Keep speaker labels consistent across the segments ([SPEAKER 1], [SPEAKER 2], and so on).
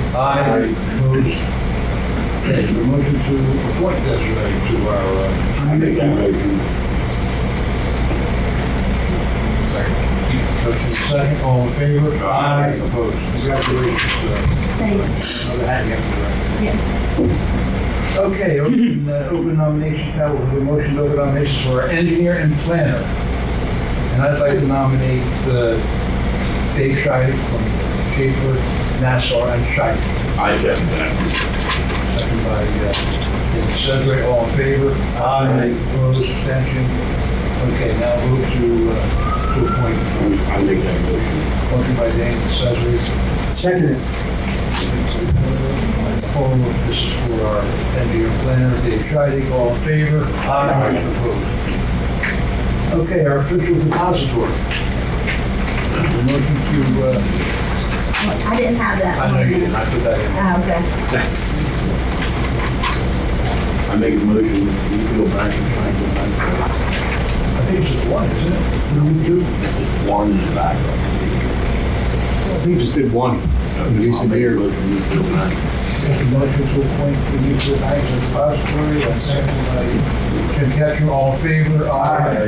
[SPEAKER 1] Aye. Opposed? Okay, the motion to appoint Desiree to our. uh,
[SPEAKER 2] I make that motion.
[SPEAKER 1] Motion second, all in favor? Aye. Opposed? Congratulations,
[SPEAKER 3] Thanks.
[SPEAKER 1] sir. Another hat you have
[SPEAKER 3] Yeah.
[SPEAKER 1] to wear. Okay, open, uh, open nominations, now we'll do a motion to open nominations for our engineer and planner. And I'd like to nominate uh, Dave Scheid from Schaefer, Nassau, and Scheid.
[SPEAKER 2] I second that.
[SPEAKER 1] Second by uh, David Sedgwick, all in favor? Aye. Opposed, abstention? Okay, now move to, uh, to appoint
[SPEAKER 2] I make that motion.
[SPEAKER 1] Motion by Dane, Sedgwick. Seconded. This is for our engineer planner, Dave Scheiding, all in favor? Aye. Opposed? Okay, our official depository. The motion to, uh,
[SPEAKER 3] I didn't have that.
[SPEAKER 1] I know you didn't, I put that in.
[SPEAKER 3] Oh, okay.
[SPEAKER 2] I make a motion, you go back and try to find
[SPEAKER 1] I think it's just one, isn't it?
[SPEAKER 2] it. do. One is back.
[SPEAKER 4] We just did one. Lisa Beer.
[SPEAKER 1] Second motion to appoint the mutual bank as depository, and second by Jim Ketchum, all in favor? Aye.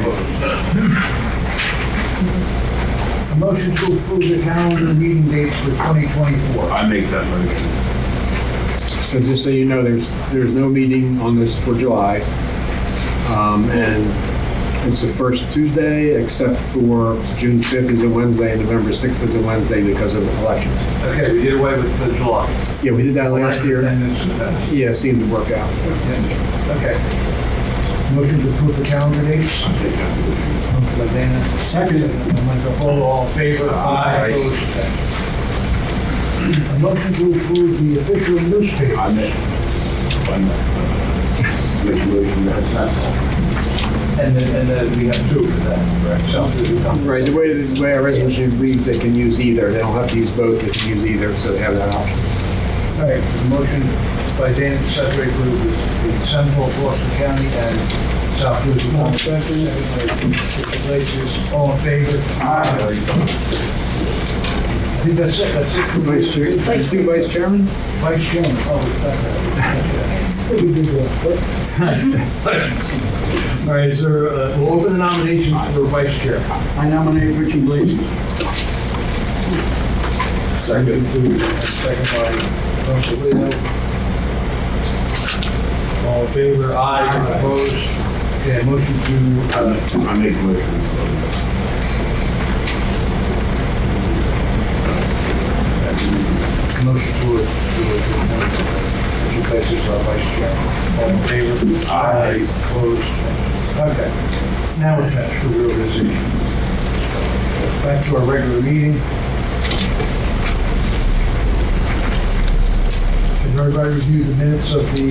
[SPEAKER 1] Opposed? A motion to approve the calendar meeting dates for 2024.
[SPEAKER 2] I make that motion.
[SPEAKER 4] So just so you know, there's, there's no meeting on this for July. Um, and it's the first Tuesday, except for June 5th is a Wednesday and November 6th is a Wednesday because of elections.
[SPEAKER 1] Okay, we did away with the July.
[SPEAKER 4] Yeah, we did that last year.
[SPEAKER 1] And it's- that's-
[SPEAKER 4] Yeah, it seemed to work out.
[SPEAKER 1] yeah. Okay. Motion to approve the calendar dates.
[SPEAKER 2] I make that motion.
[SPEAKER 1] Motion by Dana. Second. Michael Polo, all in favor?
[SPEAKER 2] Aye.
[SPEAKER 1] Opposed? A motion to approve the official newspaper.
[SPEAKER 2] I make. I Make a motion that that's
[SPEAKER 1] And then, and then we have two for that, correct? So,
[SPEAKER 4] Right, the way, the way our resolution reads, they can use either. They don't have to use both, they can use either, so they have that option.
[SPEAKER 1] All right, the motion by Dana, Secretary Group, the Central Boston County and South Jersey. All second. Places, all in favor? Aye. I think that's it, that's it. for
[SPEAKER 4] Vice
[SPEAKER 1] vice-
[SPEAKER 4] Chair, let's do Vice Chairman?
[SPEAKER 1] Vice Chairman, oh, it's not that. We did that. All right, is there, uh, we'll open the nominations for vice chair.
[SPEAKER 5] I nominate Richard Blaze.
[SPEAKER 1] Second. Second by Council Leo. All in favor? Aye. Opposed? Okay, motion to, uh,
[SPEAKER 2] all. I make a motion.
[SPEAKER 1] motion to, to, to place this on vice chair. All in favor? Aye. Opposed? Okay. Now we're back to reorganization. Back to our regular meeting. Can everybody review the minutes of the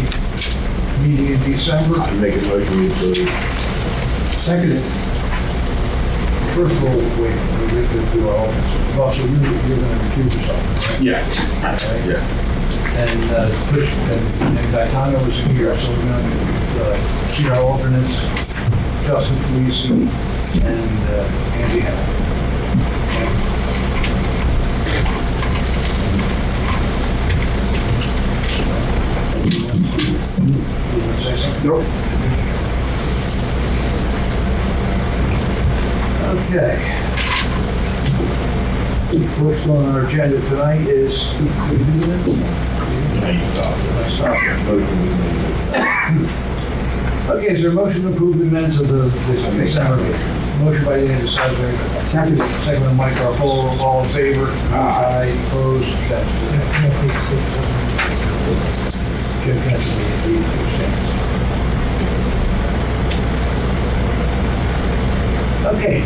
[SPEAKER 1] meeting in December?
[SPEAKER 2] I make a motion we approve.
[SPEAKER 1] Seconded. First of all, wait, we have to do our own. Russell, you- you're going to recuse yourself. right?
[SPEAKER 2] Yeah. Yeah.
[SPEAKER 1] And uh, Chris, and and Gaetano was here, so we're going to see our alternates, uh, Justin Felice and uh, Andy Howell. You want to say something?
[SPEAKER 4] Nope.
[SPEAKER 1] Okay. First on our agenda tonight is, do we do that? I stopped here. Okay, is there a motion to approve the minutes of the the December meeting? Motion by Andy Sedgwick. Second. Second by Mike Garfolo, all in favor? Aye. Opposed, abstentions. Jim Henson, the abstentions. Okay,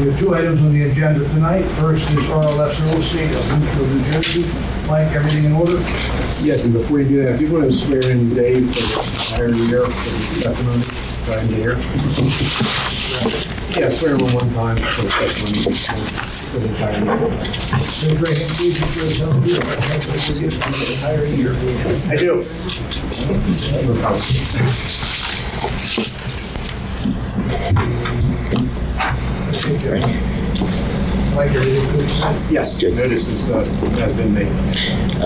[SPEAKER 1] we have two items on the agenda tonight. First is RLS Real Estate of Newfield, New Jersey. Mike, everything in order?
[SPEAKER 4] Yes, and before you do that, if you want to swear in Dave for the entire year, for the testimony, try and hear. Yeah, swear him in one time for the testimony, for the entire year.
[SPEAKER 1] Raise your hand, please, if you're so here. I can't forgive you for the entire year.
[SPEAKER 4] I do.
[SPEAKER 1] Mike, everything good?
[SPEAKER 4] Yes, notice is, uh, has been made.